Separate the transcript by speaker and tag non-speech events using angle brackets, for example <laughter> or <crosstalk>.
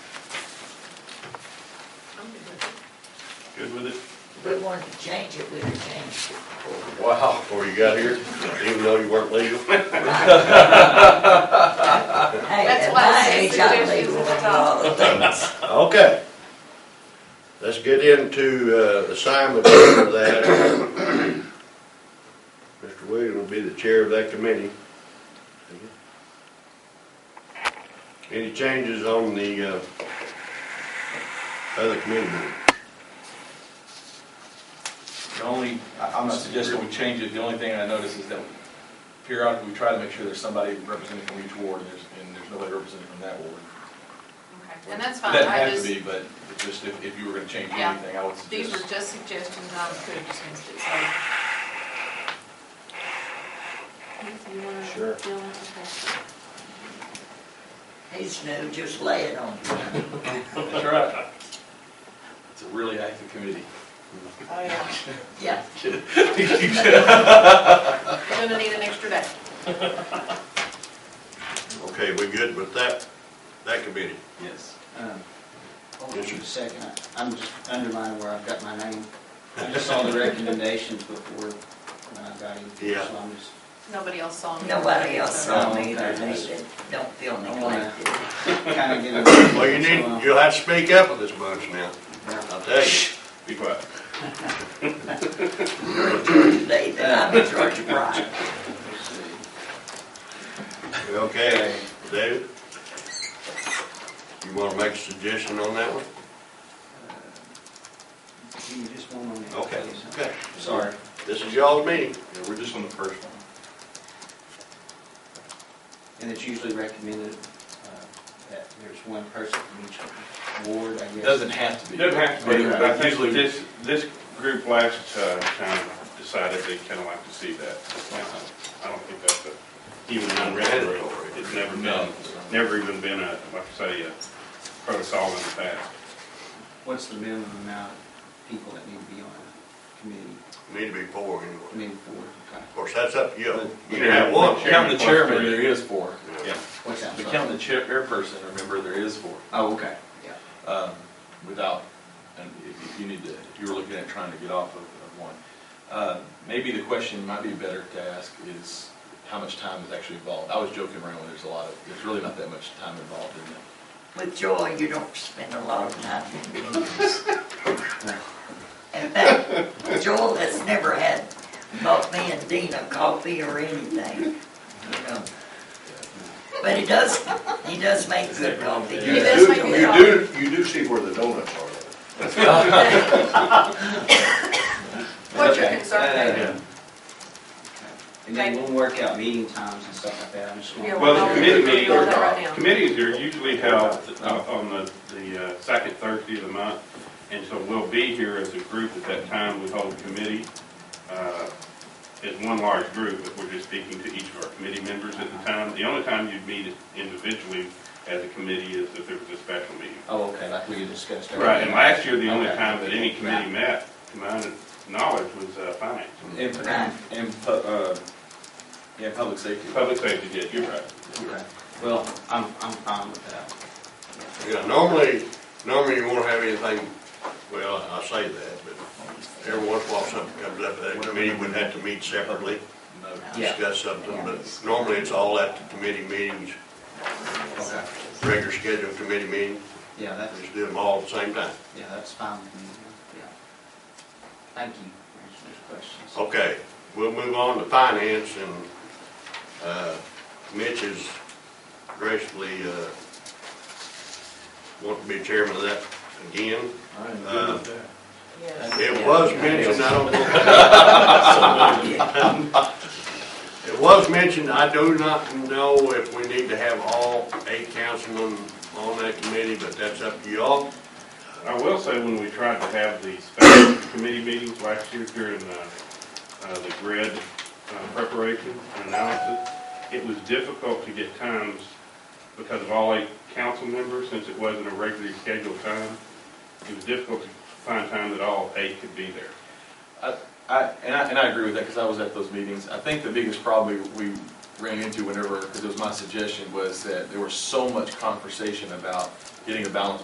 Speaker 1: Good with it?
Speaker 2: If we wanted to change it, we'd have changed it.
Speaker 3: Wow, before you got here, even though you weren't legal?
Speaker 2: Hey,
Speaker 4: That's
Speaker 2: at
Speaker 4: why I
Speaker 2: my
Speaker 4: said
Speaker 2: age, I
Speaker 4: suggestions
Speaker 2: believe
Speaker 4: at the
Speaker 2: in
Speaker 4: top.
Speaker 2: all the things.
Speaker 5: <laughs>
Speaker 3: Okay. Let's get into uh, assignment for that. Mr. Williams will be the chair of that committee. Any changes on the uh, other committee meeting?
Speaker 6: The only, I- I'm not suggesting we change it, the only thing I notice is that periodically we try to make sure there's somebody represented from each ward, and there's, and there's nobody represented from that ward.
Speaker 4: Okay, and that's
Speaker 6: It
Speaker 4: fine,
Speaker 6: doesn't
Speaker 4: I
Speaker 6: have to
Speaker 4: just,
Speaker 6: be, but it just if, if you were gonna change
Speaker 4: Yeah.
Speaker 6: anything, I would
Speaker 4: these were
Speaker 6: suggest.
Speaker 4: just suggestions, I could have just missed it, so. If you wanna
Speaker 3: Sure.
Speaker 4: deal with
Speaker 2: He's new, just lay it on him.
Speaker 6: <laughs> That's right. It's a really active committee. <laughs>
Speaker 4: it. Oh, yeah,
Speaker 2: Yeah,
Speaker 4: you're gonna need an extra day.
Speaker 3: Okay, we good with that, that committee?
Speaker 6: Yes.
Speaker 5: Um, Hold on
Speaker 3: Yes, sir.
Speaker 5: just a second, I- I'm just undermining where I've got my name. I just saw the recommendations before when I got in here,
Speaker 3: Yeah.
Speaker 5: so I'm just,
Speaker 4: Nobody else saw me.
Speaker 2: nobody else saw
Speaker 5: Oh,
Speaker 2: me either,
Speaker 5: okay.
Speaker 2: Nathan. Don't feel
Speaker 5: I wanna-
Speaker 2: neglected.
Speaker 5: kind of getting.
Speaker 3: Well, you need, you'll have to speak up with this bunch now, I'll tell you.
Speaker 6: Be quiet.
Speaker 2: You're in Georgia, Nathan, I'm in Georgia, Brian.
Speaker 3: Okay, David? You wanna make a suggestion on that one?
Speaker 5: Give me just one moment.
Speaker 3: Okay,
Speaker 5: please.
Speaker 3: okay.
Speaker 5: Sorry.
Speaker 3: This is y'all's meeting.
Speaker 6: Yeah, we're just on the first one.
Speaker 5: And it's usually recommended uh, that there's one person from each ward, I
Speaker 6: It
Speaker 5: guess.
Speaker 6: doesn't have to be.
Speaker 1: Doesn't have to be,
Speaker 6: But
Speaker 1: but I think
Speaker 6: usually-
Speaker 1: this, this group last uh, time decided they kind of like to see that. Uh, I don't think that's a, even unwritten rule. It's never
Speaker 6: No.
Speaker 1: been, never even been a, like I say, a protocol in the past.
Speaker 5: What's the minimum amount of people that need to be on a committee,
Speaker 3: Need to be four anyway.
Speaker 5: committee board? Okay.
Speaker 3: Of course, that's up to you. You
Speaker 1: Yeah.
Speaker 3: can have one.
Speaker 6: Counting the chairman, there is four.
Speaker 1: Yeah.
Speaker 5: What's that?
Speaker 6: But
Speaker 5: sorry?
Speaker 6: counting the chair, chairperson, remember, there is four.
Speaker 5: Oh, okay, yeah.
Speaker 6: um, without, and if if you need to, if you were looking at trying to get off of of one. Uh, Maybe the question might be better to ask is how much time is actually involved? I was joking around when there's a lot of, there's really not that much time involved in that.
Speaker 2: With joy, you don't spend a lot of time in meetings. In fact, Joel has never had, bought me and Dina coffee or anything, you know. But he does, he does make good coffee.
Speaker 4: He does make
Speaker 3: You do, you do see where the donuts are.
Speaker 4: What's your
Speaker 5: Okay.
Speaker 4: concern?
Speaker 5: Yeah. And then we'll work out meeting times and stuff like that, I'm just.
Speaker 4: Yeah,
Speaker 1: Well, the committee
Speaker 4: We're doing that right
Speaker 1: meetings,
Speaker 4: now.
Speaker 1: committees are usually held uh, on the, the uh, second Thursday of the month. And so we'll be here as a group at that time. We hold committee, uh, as one large group, but we're just speaking to each of our committee members at the time. The only time you'd meet individually as a committee is if there was a special meeting.
Speaker 5: Oh, okay, like we discussed. earlier.
Speaker 1: Right, and last year, the only
Speaker 5: Okay.
Speaker 1: time that any committee met, to my knowledge, was uh, finance.
Speaker 6: And,
Speaker 2: Right.
Speaker 6: and, pu- uh, yeah, public safety.
Speaker 1: Public safety, yeah, you're right.
Speaker 5: Okay. Well, I'm, I'm fine with that.
Speaker 3: Yeah, normally, normally you won't have anything, well, I say that, but every once in a while something comes up, that committee would have to meet separately,
Speaker 6: No.
Speaker 5: Yeah.
Speaker 3: discuss something, but normally it's all at the committee meetings,
Speaker 5: Okay.
Speaker 3: regular scheduled committee meetings,
Speaker 5: Yeah, that's,
Speaker 3: just do them all at the same time.
Speaker 5: yeah, that's fine with me. Yeah. Thank you. for answering those questions.
Speaker 3: Okay, we'll move on to finance, and uh, Mitch has graciously uh, want to be chairman of that again.
Speaker 6: I am
Speaker 3: Uh,
Speaker 6: good with that.
Speaker 4: Yes.
Speaker 3: It was mentioned, I don't know. <laughs> It was mentioned, I do not know if we need to have all eight councilmen on that committee, but that's up to y'all.
Speaker 1: I will say, when we tried to have the special committee meetings last year during uh, uh, the grid uh, preparation and analysis, it was difficult to get times because of all eight council members, since it wasn't a regularly scheduled time. It was difficult to find time that all eight could be there.
Speaker 6: I, and I, and I agree with that, because I was at those meetings. I think the biggest problem we we ran into whenever, because it was my suggestion, was that there was so much conversation about getting a balance